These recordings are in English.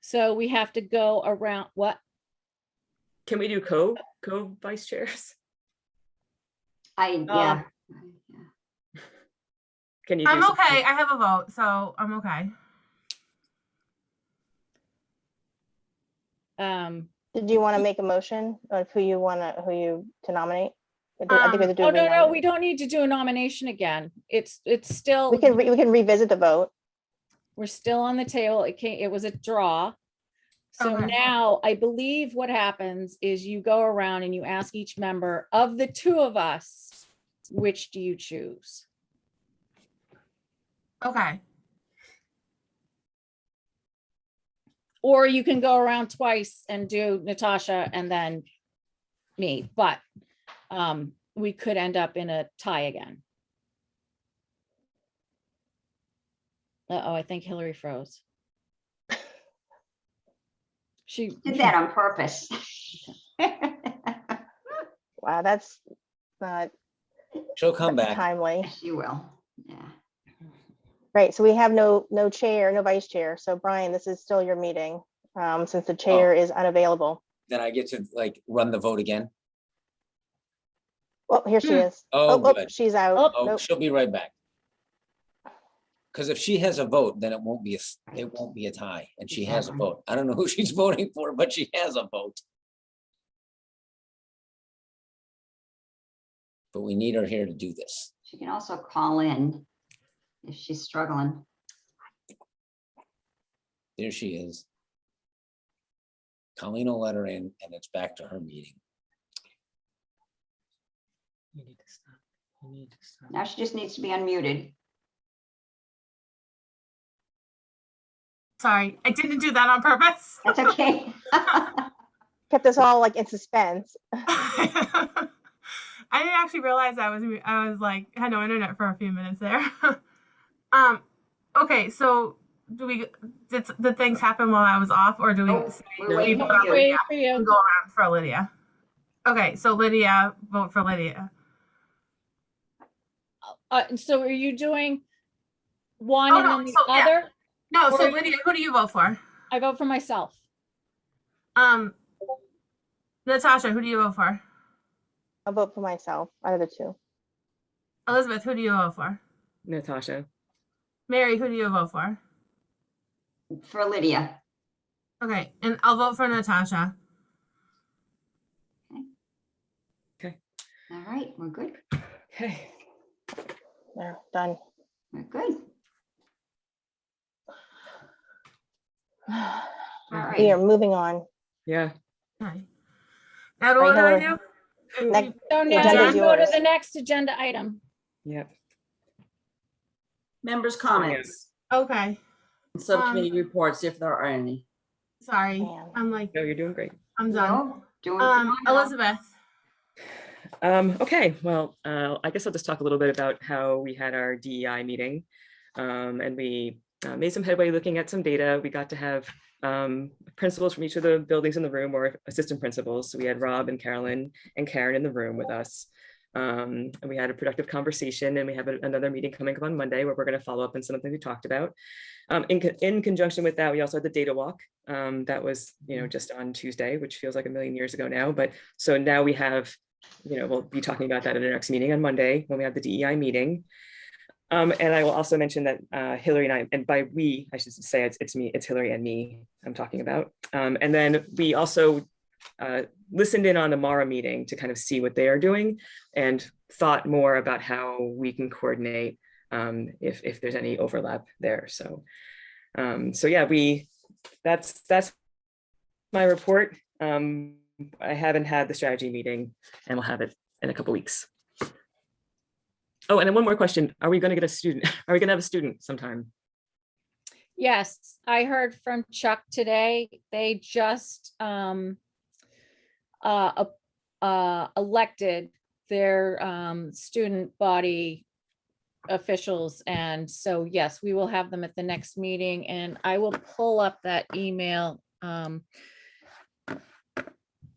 So we have to go around, what? Can we do co, co vice chairs? I, yeah. Oh. Yeah. Can you? do I'm something? okay. I have a vote, so I'm okay. Um, Did you want to make a motion of who you want to, who you to nominate? I think- I think we have to do oh, a no, no, renomination. we don't need to do a nomination again. It's, it's still, We can, re- we can revisit the vote. we're still on the table. It came, it was a draw. So Okay. now I believe what happens is you go around and you ask each member of the two of us, which do you choose? Okay. Or you can go around twice and do Natasha and then me, but um, we could end up in a tie again. Uh-oh, I think Hillary froze. She. Did that on purpose. Wow, that's not She'll come back. timely. You will, yeah. Right, so we have no, no chair, no vice chair. So Brian, this is still your meeting, um, since the Oh. chair is unavailable. Then I get to like run the vote again. Oh, here she Hmm. is. Oh, oh, good. She's out. Oh, Nope. she'll be right back. Because if she has a vote, then it won't be, a s- it won't be a tie, and she has a Exactly. vote. I don't know who she's voting for, but she has a vote. But we need her here to do this. She can also call in if she's struggling. There she is. Colleen will let her in, and it's back to her meeting. You need to stop. You need to stop. Now she just needs to be unmuted. Sorry, I didn't do that on purpose. That's okay. Kept us all like in suspense. I didn't actually realize I was re- I was like had no internet for a few minutes there. um, okay, so do we did did things happen while I was off, or do we Nope, say We're waiting Wait, for you. Waiting for you. go around for Lydia? Okay, so Lydia, vote for Lydia. Uh, and so are you doing one Oh, and no, then the so, yeah. other? No, so Or- Lydia, who do you vote for? I vote for myself. Um, Natasha, who do you vote for? I'll vote for myself out of the two. Elizabeth, who do you vote for? Natasha, Mary, who do you vote for? For Lydia. Okay, and I'll vote for Natasha. All right, we're good. okay. There, done. We're good. All We right. are moving on. Yeah. Okay. Now what do I Hillary. do? Next- So now agenda's you go to yours. the next agenda item. Yep. Members' comments, Okay, and subcommittee reports if there are any. sorry. Man. I'm like, No, you're doing great. I'm done. So, Doing. Um, phenomenal. Elizabeth. Um, okay, well, uh, I guess I'll just talk a little bit about how we had our DEI meeting. Um, and we uh, made some headway looking at some data. We got to have um, principals from each of the buildings in the room or assistant principals. So we had Rob and Carolyn and Karen in the room with us. Um, and we had a productive conversation and we have a- another meeting coming up on Monday where we're going to follow up on some of the things we talked about. Um, in, co- in conjunction with that, we also had the data walk. Um, that was, you know, just on Tuesday, which feels like a million years ago now. But so now we have you know, we'll be talking about that in our next meeting on Monday when we have the DEI meeting. Um, and I will also mention that uh, Hillary and I, and by we, I should say it's, it's me, it's Hillary and me I'm talking about. Um, and then we also uh, listened in on the Mara meeting to kind of see what they are doing and thought more about how we can coordinate um, if, if there's any overlap there. So, um, so yeah, we, that's, that's my report. Um, I haven't had the strategy meeting and we'll have it in a couple weeks. Oh, and then one more question. Are we going to get a student? Are we going to have a student sometime? Yes, I heard from Chuck today. They just um uh ap- uh elected their um student body officials. And so, yes, we will have them at the next meeting and I will pull up that email um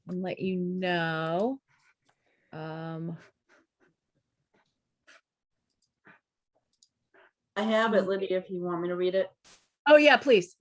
and let you know. Um, I have it, Lydia, if you want me to read it. oh yeah, please.